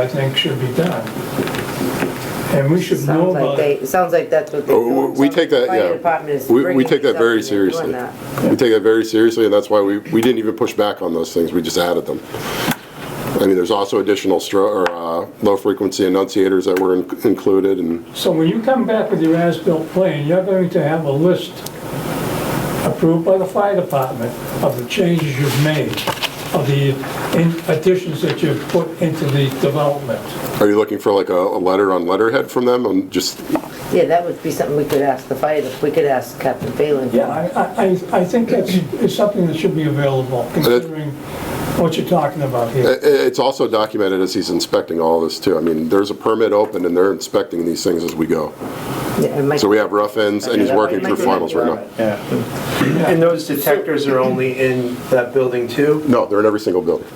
I think should be done. And we should know Sounds like about it. they, it sounds like that's what they're Oh, doing. we- We take that, Fire department yeah. is We, we bringing take that very something and doing seriously. that. We take that very seriously, and that's why we, we didn't even push back on those things, we just added them. I mean, there's also additional stro, or, uh, low-frequency enunciators that were in- included, and So when you come back with your as-built plan, you're going to have a list approved by the fire department of the changes you've made, of the in- additions that you've put into the development. are you looking for like a, a letter on letterhead from them, on just, Yeah, that would be something we could ask the fire, we could ask Captain Phelan. Yeah, I, I- I, I think that's, is something that should be available, considering what you're talking about i- i- here. it's also documented as he's inspecting all this too, I mean, there's a permit open and they're inspecting these things as we go. Yeah, it might- So we have rough ends, and he's working through finals right now. Yeah. And those detectors are only in that building too? No, they're in every single building,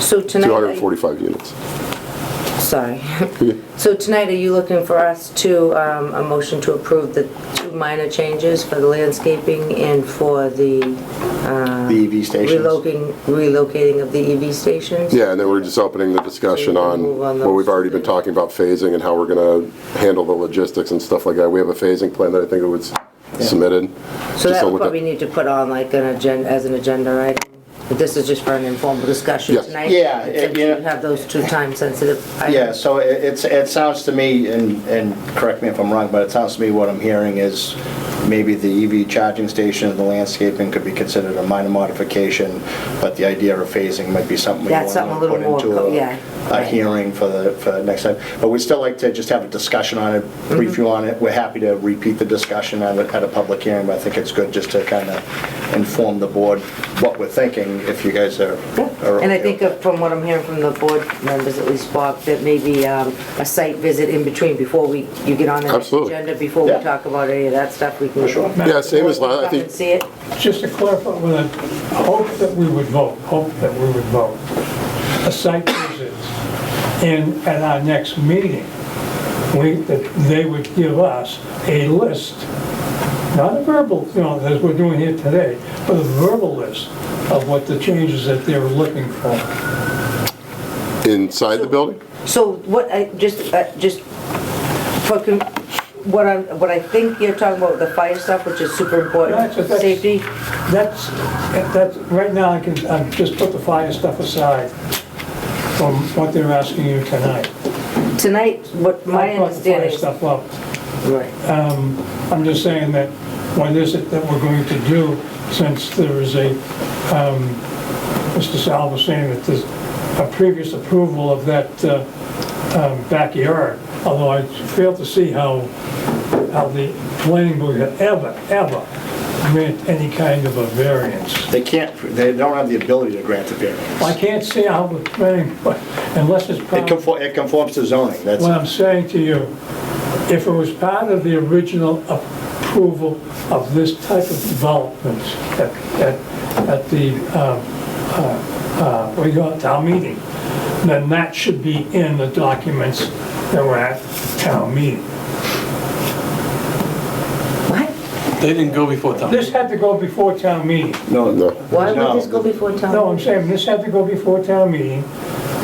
So tonight, are- 245 units. sorry. So tonight, are you looking for us to, um, a motion to approve the two minor changes for the landscaping and for the The EV stations. relocating, relocating of the EV stations? Yeah, and then we're just opening the discussion on Move on what we've those. already been talking about phasing and how we're gonna handle the logistics and stuff like that. We have a phasing plan that I think it was submitted. So Just that would on what the- probably need to put on like an agenda, as an agenda item. But This is just for an informal discussion Yes. tonight. Yeah, it- Since you yeah. have those two time-sensitive items. Yeah, so it- it's, it sounds to me, and, and correct me if I'm wrong, but it sounds to me what I'm hearing is maybe the EV charging station, the landscaping could be considered a minor modification, but the idea of phasing might be something we want That's to something a little put more into co- yeah, a, a right. hearing for the, for next time. But we'd still like to just have a discussion on it, Mm-hmm. brief you on it. We're happy to repeat the discussion at a, at a public hearing, but I think it's good just to kind of inform the board what we're thinking, if you guys are. are And I okay think with uh, from what I'm hearing from the board members, at least Bob, that maybe um, a site visit in between before we, you get on the next Absolutely. agenda, before we Yeah. talk about any of that stuff, we can. sure. Yeah, same as Come last, I and think, see it. Just to clarify, with a hope that we would vote, hope that we would vote, a site visit, and at our next meeting, we, that they would give us a list, not a verbal, you know, as we're doing here today, but a verbal list of what the changes that they were looking for. inside the building? So what, I, just, uh, just, fucking, what I'm, what I think you're talking about, the fire stuff, which is super important, That's- that's- safety, That's, that's, right now, I can, I just put the fire stuff aside from what they're asking you tonight. tonight, what my I brought the fire understanding is. stuff up. Um, Right. I'm just saying that, what is it that we're going to do since there is a, um, Mr. Sal was saying that there's a previous approval of that uh, um, backyard, although I fail to see how, how the planning board had ever, ever grant any kind of a variance. They can't, they don't have the ability to grant the variance. I can't see how the planning, board unless it's part It of conform, it conforms to zoning, that's, What I'm saying to you, if it was part of the original approval of this type of development at, at, at the, um, uh, uh, what do you call it, town meeting, then that should be in the documents that were at town meeting. What? They didn't go before town. This had to go before town meeting. no, No. Why No. would this go before town? No, I'm saying this had to go before town meeting.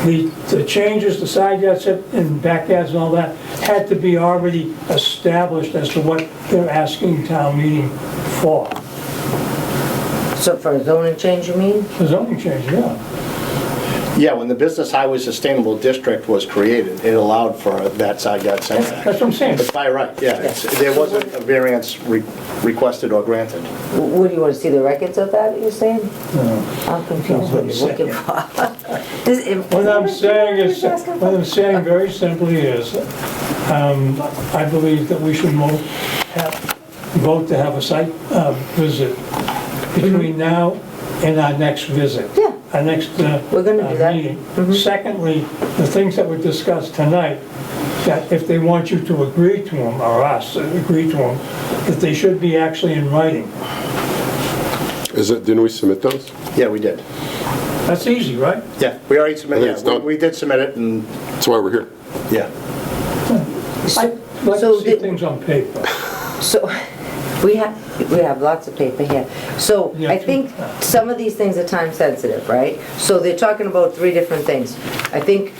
The, the changes, the side yards and backyards and all that had to be already established as to what they're asking town meeting for. So for a zoning change, you mean? The zoning change, yeah. yeah, when the Business Highway Sustainable District was created, it allowed for that side yard That's what setback. I'm saying. But by right, yeah, it's- there wasn't a variance re- requested or granted. W- Would you want to see the records of that, you're saying? I'm confused what you're looking for. Is it- What I'm saying is, Just asking what I'm saying very simply is, um, I believe that we should mo- have, vote to have a site uh, visit between now and our next visit. Mm-hmm. Yeah. Our next uh, We're gonna do uh, that. Mm-hmm. meeting. Secondly, the things that were discussed tonight, that if they want you to agree to them, or us, uh, agree to them, that they should be actually in writing. Is it, didn't we submit those? Yeah, we did. That's easy, right? Yeah, we already I think submitted, it's yeah, we- done. we did submit it, and, That's why we're here. yeah. I'd like So to see did- things on paper. So, we have, we have lots of paper here. So, Yeah, I two. think some of these things are time sensitive, right? So they're talking about three different things. I think